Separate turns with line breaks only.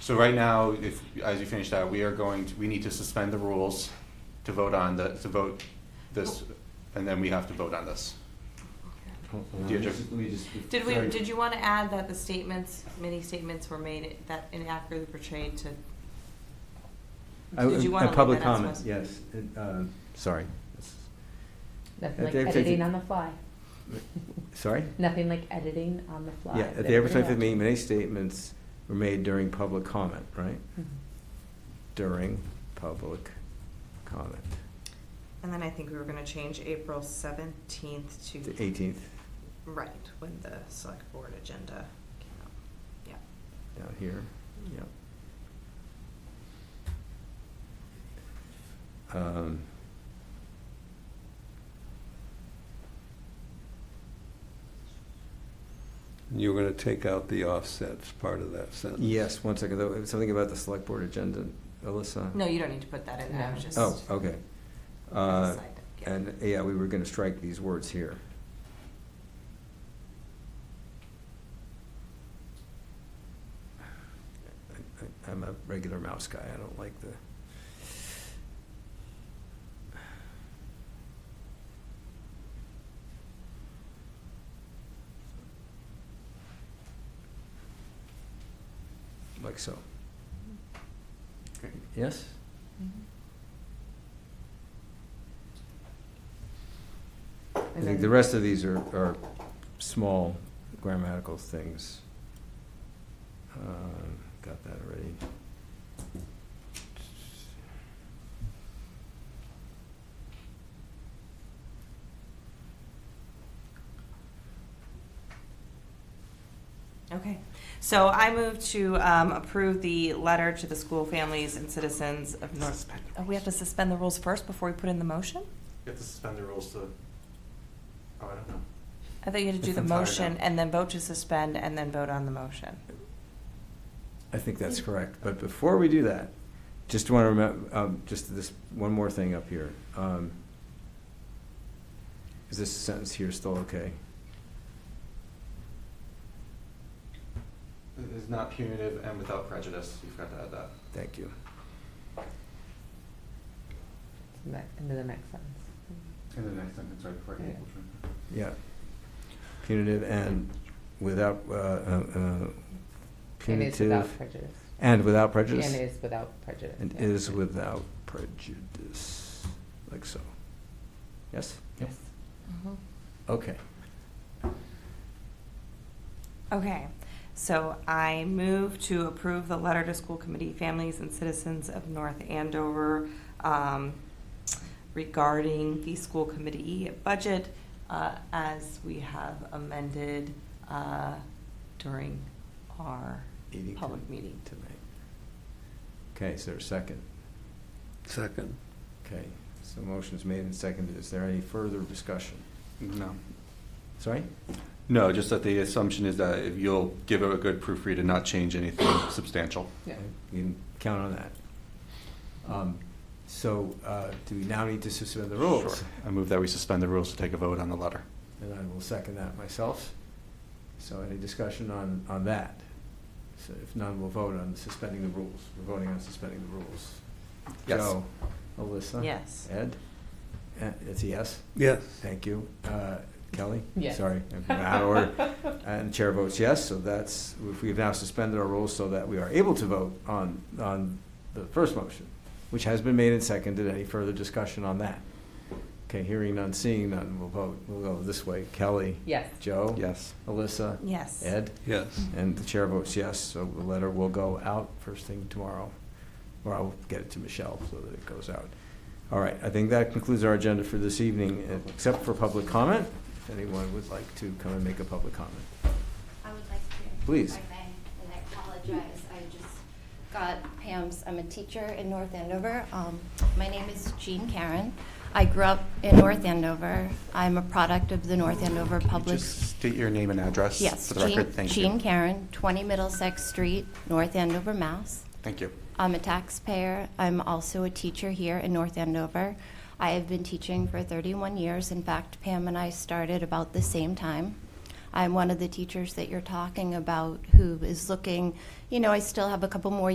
So right now, if, as you finish that, we are going, to we need to suspend the rules to vote on the, to vote this, and then we have to vote on this.
Hold- hold on,
Yeah,
let me
Jeff.
just- let me just-
Did we,
sorry.
did you want to add that the statements, many statements were made that inaccurately portrayed to?
I-
Did you
a-
want to leave
A Oh, public
that as
comment,
was?
yes, and, um, sorry. That's-
Nothing like
At the April
editing
25th
on the fly.
Sorry?
Nothing like editing on the fly.
Yeah, at the April twenty-fifth meeting, many statements were made during public comment, right?
Mm-hmm.
During public comment,
And then I think we were going to change April seventeenth to.
the eighteenth
Right, when the select board agenda came out. Yeah.
down here, yep. Um,
You were going to take out the offsets part of that sentence.
Yes, one second, though, something about the select board agenda, Alyssa?
No, you don't need to put that in. there. I was just.
Oh, okay. Uh,
As a side note, yeah.
And, yeah, we were gonna strike these words here. I- I- I'm a regular mouse guy, I don't like the. Like so.
Okay.
Yes?
Mm-hmm.
I think the rest of these are, are small grammatical things. Um, Got that already.
Okay, so I move to um, approve the letter to the school families and citizens of North. Oh, we have to suspend the rules first before we put in the motion?
You have to suspend the rules to, oh, I don't know.
I thought you had to do
If
the
I'm tired,
motion
I'll-
and then vote to suspend and then vote on the motion.
I think that's correct, but before we do that, just want to remember, um, just this, one more thing up here. Um, Is this sentence here still okay?
It is not punitive and without prejudice, you forgot to add that.
Thank you.
Into the next sentence.
In the next sentence, right before
Yeah.
equal treatment.
Yeah. Punitive and without, uh, uh, uh,
And is without
punitive.
prejudice.
And without prejudice?
And is without prejudice.
And
yeah.
is without prejudice, like so. Yes?
Yes.
Mm-hmm.
Okay.
Okay, so I move to approve the letter to school committee families and citizens of North Andover um, regarding the school committee budget uh, as we have amended uh, during our
Meeting
public
to-
meeting.
Tonight. Okay, is there a second?
Second.
Okay, so motion's made and seconded. Is there any further discussion?
No.
Sorry?
No, just that the assumption is that if you'll give it a good proofread and not change anything substantial.
Yeah.
You can count on that. Um, So, uh, do we now need to suspend the rules?
Sure. I move that we suspend the rules to take a vote on the letter.
And I will second that myself. So any discussion on, on that? So if none, we'll vote on suspending the rules. We're voting on suspending the rules.
Yes.
Joe, Alyssa?
Yes.
Ed? Uh, It's a yes?
Yes.
Thank you. Uh, Kelly?
Yes.
Sorry, I've been out of order. And the chair votes yes, so that's, we've now suspended our rules so that we are able to vote on, on the first motion, which has been made and seconded. Any further discussion on that? Okay, hearing none, seeing none, we'll vote. We'll go this way. Kelly?
Yes.
Joe?
Yes.
Alyssa?
Yes.
Ed?
Yes.
And the chair votes yes, so the letter will go out first thing tomorrow, or I'll get it to Michelle so that it goes out. All right, I think that concludes our agenda for this evening, except for public comment. If anyone would like to come and make a public comment.
I would like to.
Please.
If I may, and I apologize, I just got Pam's, I'm a teacher in North Andover. Um, My name is Jean Karen. I grew up in North Andover. I'm a product of the North Andover
Can you
Public.
Just state your name and address
Yes,
for the record.
Jean,
Thank
Jean
you.
Karen, 20 Middlesex Street, North Andover, Mass.
Thank you.
I'm a taxpayer. I'm also a teacher here in North Andover. I have been teaching for 31 years. In fact, Pam and I started about the same time. I'm one of the teachers that you're talking about who is looking, you know, I still have a couple more